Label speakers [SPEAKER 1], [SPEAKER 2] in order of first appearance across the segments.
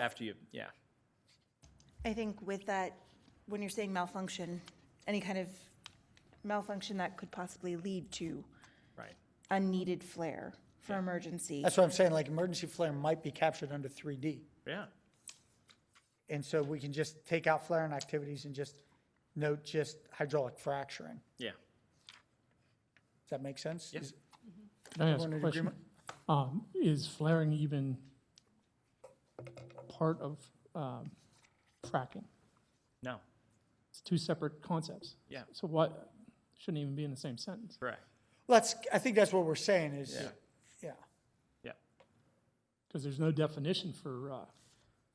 [SPEAKER 1] after you, yeah.
[SPEAKER 2] I think with that, when you're saying malfunction, any kind of malfunction that could possibly lead to
[SPEAKER 1] Right.
[SPEAKER 2] unneeded flare for emergency.
[SPEAKER 3] That's what I'm saying, like, emergency flare might be captured under 3D.
[SPEAKER 1] Yeah.
[SPEAKER 3] And so we can just take out flaring activities and just note just hydraulic fracturing.
[SPEAKER 1] Yeah.
[SPEAKER 3] Does that make sense?
[SPEAKER 1] Yes.
[SPEAKER 3] Is-
[SPEAKER 4] Can I ask
[SPEAKER 3] Everyone
[SPEAKER 4] a
[SPEAKER 3] in
[SPEAKER 4] question?
[SPEAKER 3] agreement?
[SPEAKER 4] Um, Is flaring even part of um, fracking?
[SPEAKER 1] No.
[SPEAKER 4] It's two separate concepts.
[SPEAKER 1] Yeah.
[SPEAKER 4] So what, shouldn't even be in the same sentence.
[SPEAKER 1] Correct.
[SPEAKER 3] Well, That's, I think that's what we're saying is,
[SPEAKER 1] Yeah.
[SPEAKER 3] yeah.
[SPEAKER 1] Yeah.
[SPEAKER 4] Because there's no definition for uh,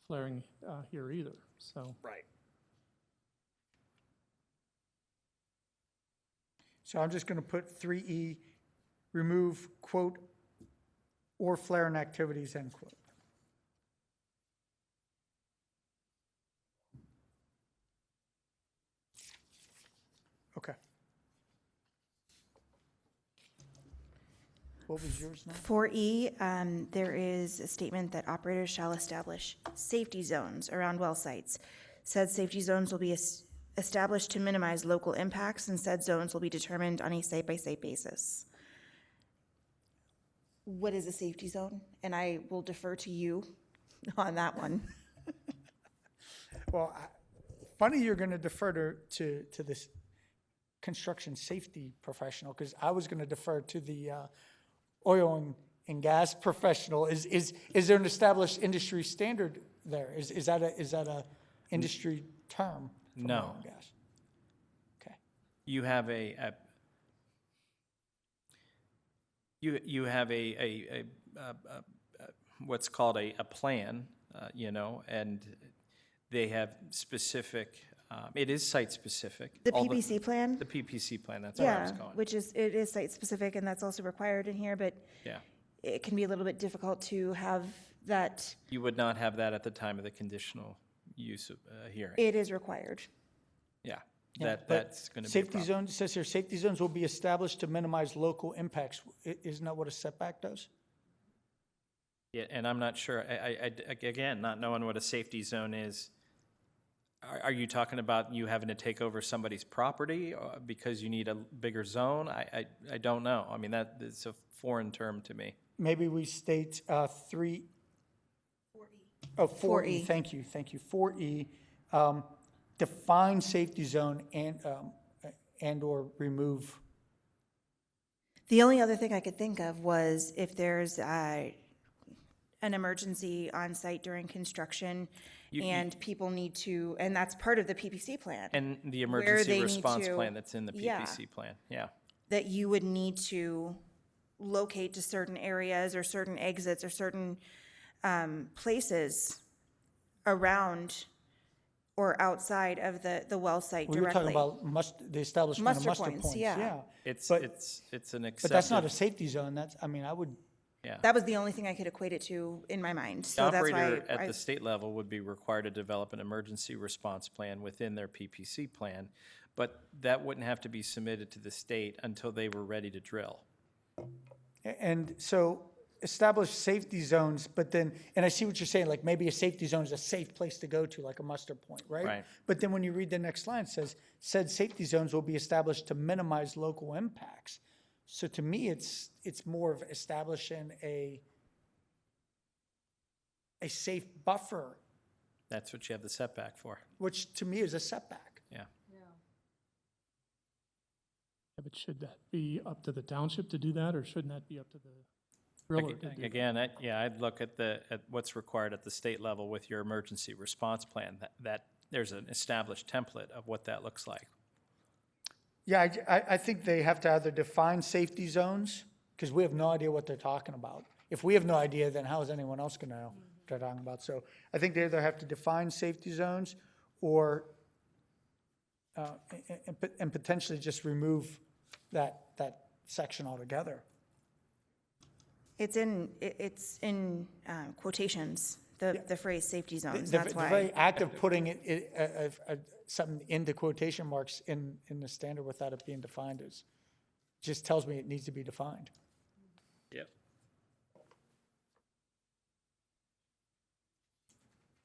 [SPEAKER 4] flaring uh, here either, so.
[SPEAKER 3] Right. So I'm just gonna put three E, remove quote, or flaring activities, end quote. Okay. What was yours now?
[SPEAKER 2] For E, um, there is a statement that operators shall establish safety zones around well sites. Said safety zones will be es- established to minimize local impacts, and said zones will be determined on a site-by-site basis. What is a safety zone? And I will defer to you on that one.
[SPEAKER 3] Well, I- funny you're going to defer to, to, to this construction safety professional, because I was going to defer to the uh, oil and, and gas professional. Is, is, is there an established industry standard there? Is, is that a, is that a industry term? for oil
[SPEAKER 1] No.
[SPEAKER 3] and gas? Okay,
[SPEAKER 1] You have a, a you you have a a, a, a, a, a what's called a, a plan, uh, you know, and they have specific. Um, it is site specific.
[SPEAKER 2] The PPC plan?
[SPEAKER 1] The PPC plan. That's where I was
[SPEAKER 2] Yeah,
[SPEAKER 1] going.
[SPEAKER 2] which is, it is site-specific, and that's also required in here, but
[SPEAKER 1] yeah.
[SPEAKER 2] it can be a little bit difficult to have that,
[SPEAKER 1] You would not have that at the time of the conditional use of, uh, hearing.
[SPEAKER 2] it is required.
[SPEAKER 1] yeah. That
[SPEAKER 3] but
[SPEAKER 1] that's going to be a
[SPEAKER 3] Safety
[SPEAKER 1] problem.
[SPEAKER 3] zones, it says here, safety zones will be established to minimize local impacts. I- Isn't that what a setback does?
[SPEAKER 1] Yeah, and I'm not sure, I, I- I d- ag- again, not knowing what a safety zone is, are, are you talking about you having to take over somebody's property uh, because you need a bigger zone? I, I, I don't know. I mean, that, it's a foreign term to me.
[SPEAKER 3] maybe we state uh, three. Oh, four E,
[SPEAKER 2] 4E.
[SPEAKER 3] thank you, thank you. Four E, um, define safety zone and, um, and/or remove.
[SPEAKER 2] The only other thing I could think of was if there's uh, an emergency on site during construction and people need to, and that's part of the PPC plan,
[SPEAKER 1] And the
[SPEAKER 2] Where they
[SPEAKER 1] emergency
[SPEAKER 2] need
[SPEAKER 1] response
[SPEAKER 2] to-
[SPEAKER 1] plan that's in the
[SPEAKER 2] yeah.
[SPEAKER 1] PPC plan, yeah.
[SPEAKER 2] that you would need to locate to certain areas or certain exits or certain um, places around or outside of the, the well site
[SPEAKER 3] We were talking
[SPEAKER 2] directly.
[SPEAKER 3] about must, the establishment of
[SPEAKER 2] Muster
[SPEAKER 3] muster
[SPEAKER 2] points,
[SPEAKER 3] points,
[SPEAKER 2] yeah.
[SPEAKER 3] yeah.
[SPEAKER 1] It's,
[SPEAKER 3] But-
[SPEAKER 1] it's, it's an
[SPEAKER 3] But that's not a
[SPEAKER 1] accepted,
[SPEAKER 3] safety zone, that's, I mean, I would,
[SPEAKER 2] That was the only thing I could equate it to in my mind,
[SPEAKER 1] the
[SPEAKER 2] so that's why.
[SPEAKER 1] operator at
[SPEAKER 2] I-
[SPEAKER 1] the state level would be required to develop an emergency response plan within their PPC plan, but that wouldn't have to be submitted to the state until they were ready to drill.
[SPEAKER 3] a- and so establish safety zones, but then, and I see what you're saying, like, maybe a safety zone is a safe place to go to, like a muster point, right?
[SPEAKER 1] Right.
[SPEAKER 3] But then when you read the next line, it says, said safety zones will be established to minimize local impacts. So to me, it's, it's more of establishing a, a safe buffer,
[SPEAKER 1] That's what you have the setback for,
[SPEAKER 3] which to me is a setback.
[SPEAKER 1] yeah.
[SPEAKER 4] Yeah, But should that be up to the township to do that, or shouldn't that be up to the driller to do? that?
[SPEAKER 1] Again, I, yeah, I'd look at the, at what's required at the state level with your emergency response plan, that, that, there's an established template of what that looks like.
[SPEAKER 3] Yeah, I, I- I think they have to either define safety zones, because we have no idea what they're talking about. If we have no idea, then how is anyone else gonna know what they're talking about? So I think they either have to define safety zones or, uh, and, and pot- and potentially just remove that, that section altogether.
[SPEAKER 2] It's in, i- it's in um, quotations, the, the phrase safety zones,
[SPEAKER 3] The-
[SPEAKER 2] that's
[SPEAKER 3] The very
[SPEAKER 2] why.
[SPEAKER 3] act of putting it, it, uh, uh, uh, something into quotation marks in, in the standard without it being defined is, just tells me it needs to be defined.